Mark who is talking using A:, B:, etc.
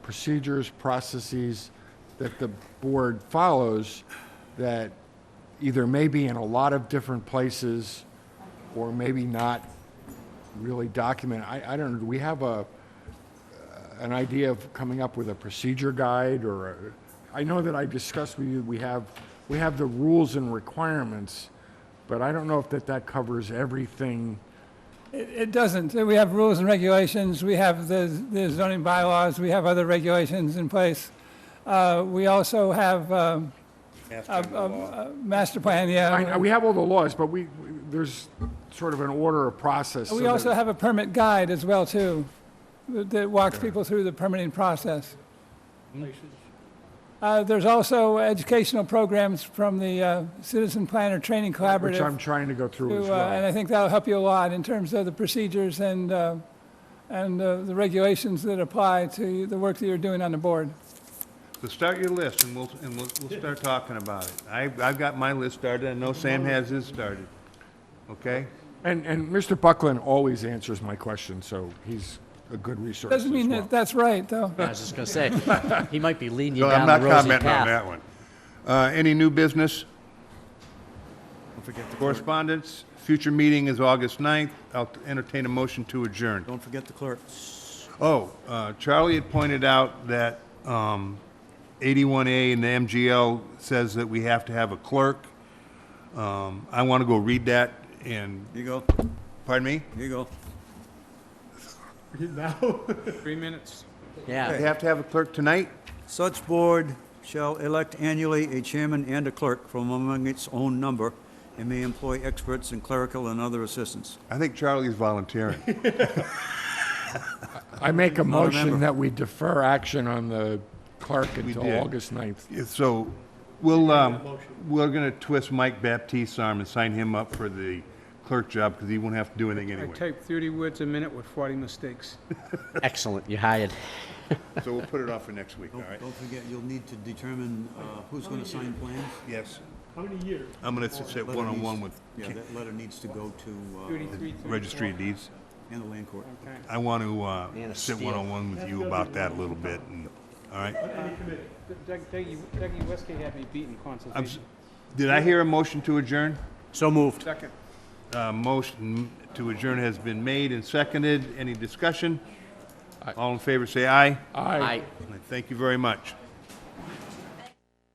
A: procedures, processes that the board follows that either may be in a lot of different places or maybe not really documented. I, I don't know, do we have a, an idea of coming up with a procedure guide or, a- I know that I discussed with you, we have, we have the rules and requirements, but I don't know if that, that covers everything.
B: It it doesn't. We have rules and regulations, we have the the zoning bylaws, we have other regulations in place. Uh, We also have um, a a- a master plan,
A: I,
B: yeah.
A: know we have all the laws, but we, we- there's sort of an order of process. so
B: We
A: that-
B: also have a permit guide as well, too, that that walks people through the permitting process.
A: Hmm.
B: Uh, There's also educational programs from the uh, Citizen Planner Training Collaborative.
A: Which I'm trying to go through as
B: to, uh, And
A: well.
B: I think that'll help you a lot in terms of the procedures and, uh, and uh, the regulations that apply to the work that you're doing on the board.
C: So start your list, and we'll, and we'll, we'll start talking about it. I, I've got my list started, I know Sam has his started, okay?
A: And, and Mr. Buckland always answers my question, so he's a good resource as
B: Doesn't mean
A: well.
B: that that's right, though.
D: I was just going to say, he might be leading you
C: So I'm
D: down the
C: not
D: rosy
C: commenting on
D: path.
C: that one. Uh, any new business? Correspondence, future meeting is August 9th. I'll entertain a motion to adjourn.
E: Don't forget the clerk.
C: Oh, uh, Charlie had pointed out that, um, 81A in the MGL says that we have to have a clerk. Um, I want to go read that and,
E: You go,
C: pardon me?
E: you go.
D: Yeah.
C: They have to have a clerk tonight?
E: Such board shall elect annually a chairman and a clerk from among its own number and may employ experts in clerical and other assistants.
C: I think Charlie's volunteering.
A: I make a
E: Not a
A: motion
E: member.
A: that we defer action on the clerk until
C: did.
A: August 9th.
C: Yeah, So, we'll, um, we're gonna twist Mike Baptiste's arm and sign him up for the clerk job, because he won't have to do anything
F: I
C: anyway.
F: type 30 words a minute with 40 mistakes.
D: Excellent. You hired.
C: So we'll put it off for next week, all
E: Don't
C: right?
E: don't forget, you'll need to determine uh, who's going to sign plans.
C: Yes. How many years? I'm gonna s- sit
E: Letter
C: one-on-one
E: needs-
C: with
E: Yeah, that letter needs to go to,
F: 33, 34.
C: Registry of Deeds.
E: uh, and the land court.
C: I want to,
D: Man
C: uh,
D: of
C: sit
D: steel.
C: one-on-one with you about that a little bit, and, all right?
F: Doug- Dougie Dougie Westgate had me beaten
C: I'm s-
F: consultation.
C: Did I hear a motion to adjourn?
E: So moved.
F: Second.
C: Uh, motion to adjourn has been made and seconded. Any discussion? All in favor, say aye.
D: I
C: Thank you very much.